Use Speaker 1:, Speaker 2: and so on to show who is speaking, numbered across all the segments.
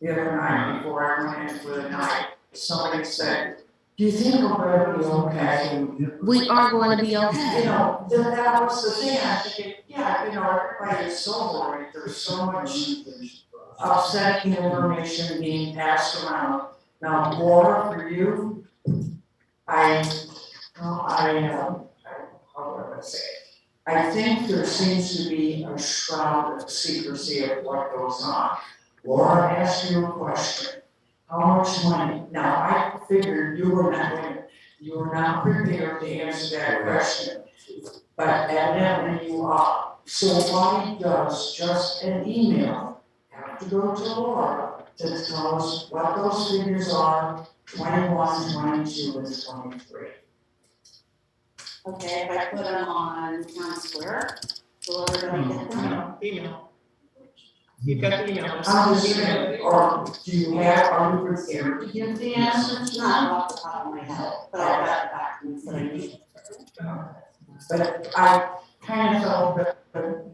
Speaker 1: the other night before I went in for the night, somebody said, do you think we're gonna be okay? And,
Speaker 2: We are going to be
Speaker 1: You
Speaker 2: okay.
Speaker 1: know, then that was the thing, I think, yeah, you know, everybody is so worried, there's so much upsetting information being passed around. Now, Laura, for you, I, well, I, um, I- how do I say it? I think there seems to be a shroud of secrecy of what goes on. Laura asked you a question, how much money? Now, I figured you were not, gonna- you were not prepared to answer that question, but evidently you are. So why does just an email have to go to Laura to tell us what those figures are, 21, 22, and twenty-three.
Speaker 3: Okay, if I put them on town square, will everybody get them?
Speaker 4: No, email. You got the email.
Speaker 1: I'm just saying, or do you have, are you prepared to give the answers?
Speaker 3: It's not off the top of my head, but I got the documents that I need.
Speaker 1: But I kind of felt that, that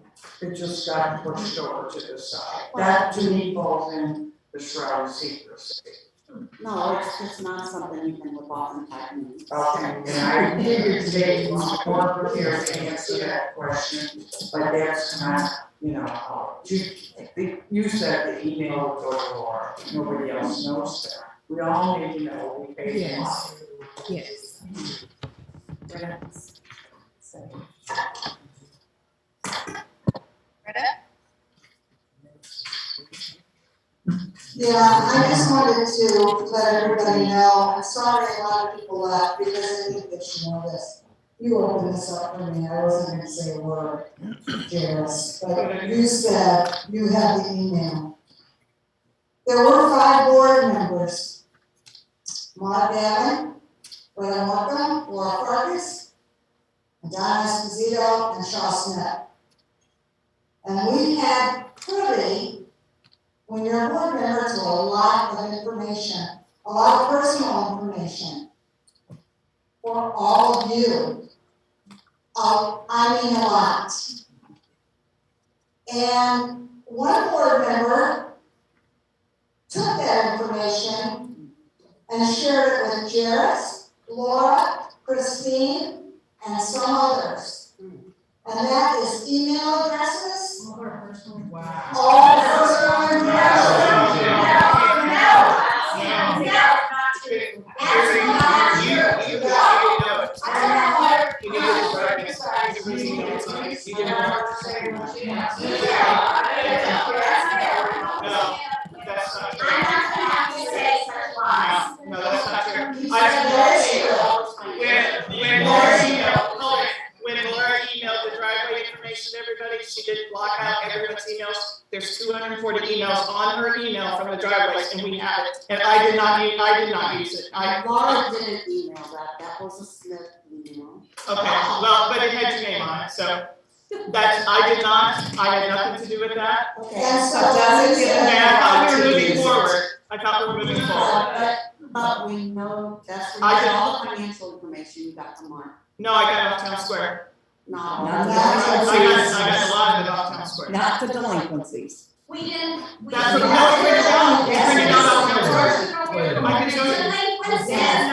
Speaker 1: it just got pushed over to the side. That to me falls in the shroud of secrecy.
Speaker 3: No, it's just not something you can whip off in five minutes.
Speaker 1: Okay, Um, and I figured today you were more prepared to answer that question, but that's not, you know, how- you, you said the email would go to Laura, nobody else knows that. We all need to know, we paid them off.
Speaker 2: Yes.
Speaker 5: Yeah, I just wanted to let everybody know, I'm sorry a lot of people left because I think that you know this. You opened this up for me, I wasn't gonna say a word, Jairus, but you said you had the email. There were five board members. Maude Gavin, Brenda Markham, Laura Farkas, Don Esposito, and Shaw Smith. And we had pretty when you're a board member, it's a lot of information, a lot of personal information for all of you. Uh, I mean a lot. And one board member took that information and shared it with Jairus, Laura, Christine, and some others. And that is email addresses,
Speaker 1: Wow.
Speaker 5: all personal information.
Speaker 4: You, you got it, no. You did it right. You did it right. No, that's not true. No, that's not true. When, when Laura emailed, hold it. when Laura emailed the driveway information to everybody, she did block out everyone's emails. There's two hundred and forty emails on her email from the driveways and we have it. And I did not, u- I did not use it. I,
Speaker 3: Laura didn't email that, that was a Smith email.
Speaker 4: Okay, well, but it had your name on it, so that's, I did not, I had nothing to do with that.
Speaker 3: Okay.
Speaker 5: And so
Speaker 3: doesn't give
Speaker 4: And
Speaker 3: them
Speaker 4: I thought we were moving forward, I thought we were moving forward.
Speaker 3: But, but we know, that's where
Speaker 4: I
Speaker 3: you
Speaker 4: don't-
Speaker 3: got all the financial information you got from Mark,
Speaker 4: No, I got off town square.
Speaker 3: not all.
Speaker 6: Not
Speaker 3: the-
Speaker 4: I
Speaker 5: That's
Speaker 4: got,
Speaker 5: what
Speaker 4: I
Speaker 5: it
Speaker 4: got
Speaker 5: is.
Speaker 4: a lot of it off town square.
Speaker 6: Not the delinquencies.
Speaker 7: We didn't, we.
Speaker 4: That's what, that's what we're doing, we're bringing it on off town square. I can show you.
Speaker 7: Delinquencies as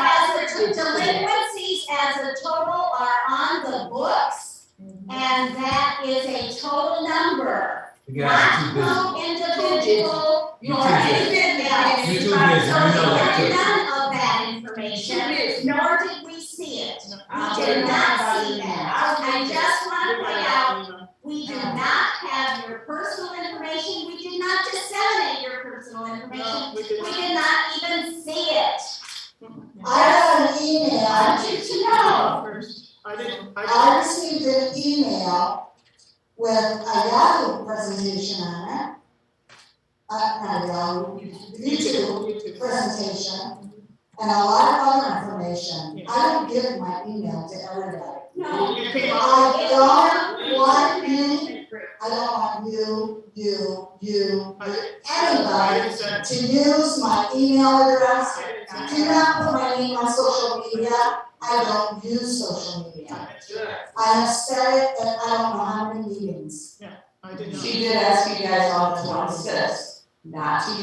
Speaker 7: the, delinquencies as a total are on the books, and that is a total number.
Speaker 8: You guys are too busy.
Speaker 7: Not no individual
Speaker 8: You
Speaker 7: or
Speaker 8: too busy.
Speaker 7: anything else.
Speaker 8: You too busy, you know that
Speaker 7: So we
Speaker 8: too.
Speaker 7: had none of that information, nor did we see it. We did not see that. I just want to point out, we do not have your personal information, we did not disseminate your personal information.
Speaker 4: No, we
Speaker 7: We
Speaker 4: did not.
Speaker 7: did not even see it.
Speaker 5: I got an email,
Speaker 7: I wanted to know.
Speaker 4: I didn't, I
Speaker 5: I received an email with a Yahoo presentation on it. Uh, not Yahoo, YouTube
Speaker 4: didn't. You too.
Speaker 5: presentation, and a lot of other information. I don't give my email to everybody.
Speaker 7: No.
Speaker 4: You came off.
Speaker 5: I don't want me, I don't want you, you, you,
Speaker 4: I didn't- I
Speaker 5: anybody
Speaker 4: didn't send,
Speaker 5: to use my email address
Speaker 4: I didn't send.
Speaker 5: Do not put my name on social media, I don't use social media. I have said it at I don't know how many meetings.
Speaker 4: I did not.
Speaker 9: She did ask you guys on the twenty-sixth not to